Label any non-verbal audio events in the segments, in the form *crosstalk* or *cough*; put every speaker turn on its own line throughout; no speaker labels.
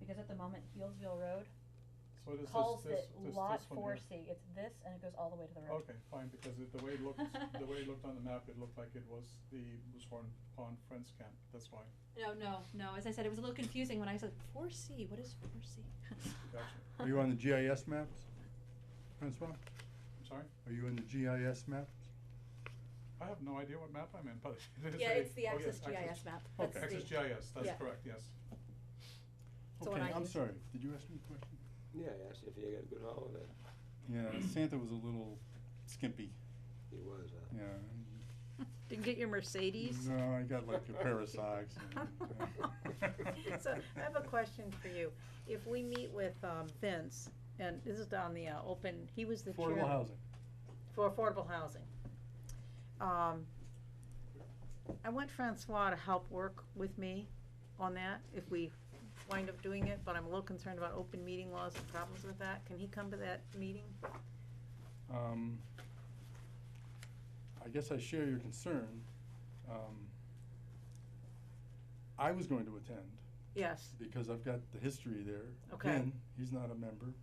because at the moment Healdsville Road
What is this,
calls
this,
it
this, this one
Lot
here?
four C, it's this and it goes all the way to the road.
Okay, fine, because it- the way it looked, the way it looked on the map, it looked like it was the Moose Horn Pond Friends Camp, that's why.
No, no, no, as I said, it was a little confusing when I said four C, what is four C?
*laughs*
Gotcha.
Are you on the GIS maps, Francois?
I'm sorry?
Are you in the GIS maps?
I have no idea what map I'm in, but it is
Yeah,
a-
it's the
oh,
Access
yes,
GIS map,
Okay.
that's
Okay, Access
the,
GIS,
yeah.
that's correct, yes.
So when
Okay,
I
I'm
do-
sorry, did you ask me a question?
Yeah, I asked if he had a good holiday.
Yeah, Santa was a little skimpy,
He was, uh, huh?
yeah.
Didn't get your Mercedes?
No, I got like a pair of socks uh, and-
*laughs* So I have a question for you. If we meet with um, Vince, and this is on the uh, open, he was the chair.
Affordable housing.
For affordable housing. Um, I want Francois to help work with me on that, if we wind up doing it, but I'm a little concerned about open meeting laws and problems with that. Can he come to that meeting?
Um, I guess I share your concern. Um, I was going to attend
Yes,
because I've got the history there.
Okay.
Again, he's not a member.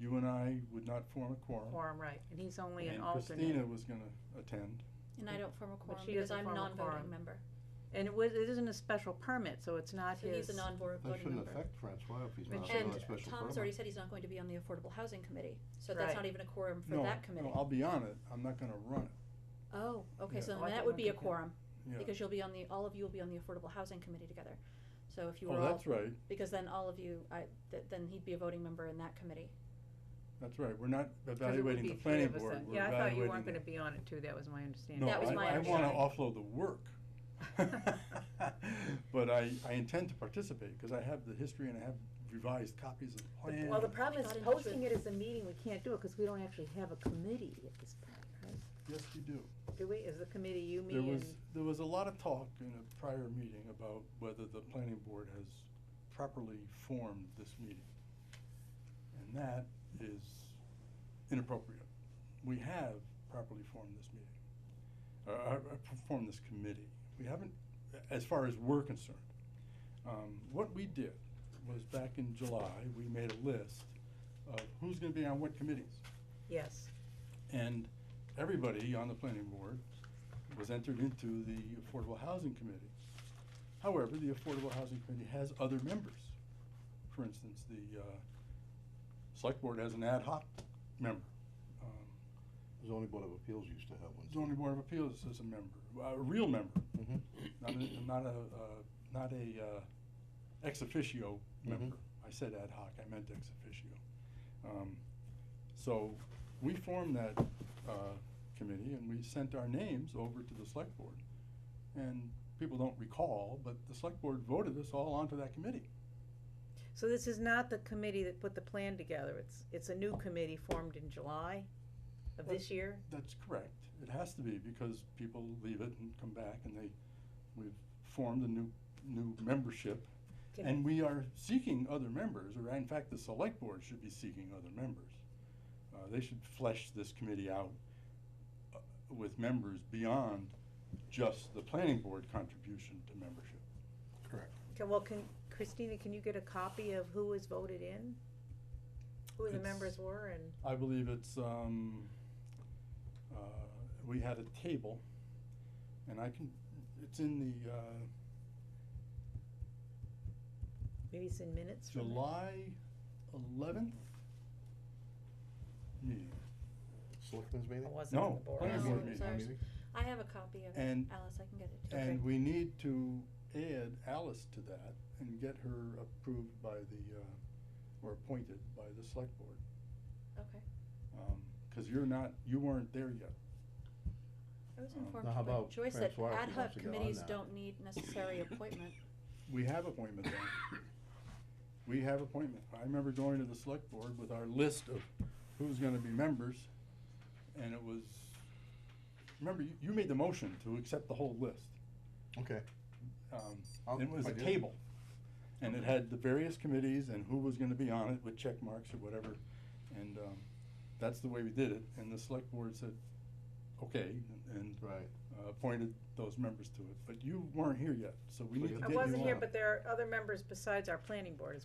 You and I would not form a quorum.
quorum, right, and he's only an
And
alternate.
Christina was gonna attend.
and I don't form a quorum
she
because
doesn't
I'm
form a
non-voting
quorum.
member,
And it was, it isn't a special permit, so it's not
so he's
his.
a non-voting member.
That shouldn't affect Francois if he's
But
not
should-
on
And
a special
Tom's already
permit.
said he's not going to be on the Affordable Housing Committee, so that's
Right.
not even a quorum for
No,
that committee.
No, I'll be on it. I'm not gonna run it.
Oh, okay,
Yeah.
so
Oh,
then
I thought
that
you
would be a
weren't taking it.
quorum,
Yeah.
because you'll be on the, all of you will be on the Affordable Housing Committee together. So if you were
Oh,
all,
that's right.
because then all of you, I, th- then he'd be a voting member in that committee.
That's right. We're not
Because it would
evaluating
be
the
three
planning
of us
board.
then.
We're
Yeah, I thought you
evaluating
weren't gonna
the-
be on it too, that was my understanding.
No,
That was my
I, I wanna
understanding.
offload the work. *laughs* But I, I intend to participate because I have the history and I have revised copies of the plan.
Well, the problem is
Got in touch
posting
with-
it as a meeting, we can't do it, cause we don't actually have a committee at this point, right?
Yes, you do.
Do we, is the committee you, me,
There was,
and,
there was a lot of talk in a prior meeting about whether the planning board has properly formed this meeting. And that is inappropriate. We have properly formed this meeting, uh, uh, formed this committee. We haven't, as far as we're concerned. Um, what we did was back in July, we made a list of who's gonna be on what committees.
yes,
And everybody on the planning board was entered into the Affordable Housing Committee. However, the Affordable Housing Committee has other members. For instance, the, uh, select board has an ad hoc member. Um,
The zoning board of appeals used to have one.
Zoning Board of Appeals is a member, a real member,
Mhm.
not a, not a, uh, not a, uh, ex officio member. I said ad hoc, I meant ex officio. Um, so we formed that, uh, committee and we sent our names over to the select board. And people don't recall, but the select board voted us all onto that committee.
so this is not the committee that put the plan together, it's, it's a new committee formed in July of this year?
That's correct. It has to be because people leave it and come back and they, we've formed a new, new membership.
Can-
And we are seeking other members, or in fact, the select board should be seeking other members. Uh, they should flesh this committee out uh, with members beyond just the planning board contribution to membership. Correct.
Can- Well, can, Christina, can you get a copy of who was voted in? Who the
It's-
members were and,
I believe it's, um, uh, we had a table, and I can, it's in the, uh,
maybe it's in minutes from that?
July eleventh meeting.
Selectmen's meeting?
Or was it on
No,
the board?
planning
No,
board
it was
meeting.
our-
Meeting?
I have a copy of it,
And-
Alice, I can get it. to you.
And we need to add Alice to that and get her approved by the, uh, or appointed by the select board.
Okay,
Um cause you're not, you weren't there yet.
I was
Um,
informed
now how
by
about
Joyce that
Francois if
ad
he
hoc
wants to get on
committees
that?
don't need necessary appointment.
We have appointment then. We have appointment. I remember going to the select board with our list of who's gonna be members, and it was, remember, you, you made the motion to accept the whole list.
Okay.
Um,
I'll-
It was
Oh, I
a
do.
table, and it had the various committees and who was gonna be on it with check marks or whatever, and, um, that's the way we did it, and the select board said, okay, and
Right.
uh, appointed those members to it, but you weren't here yet, so we
Well,
need to
you-
get
I
you on.
wasn't here, but there are other members besides our planning board as well.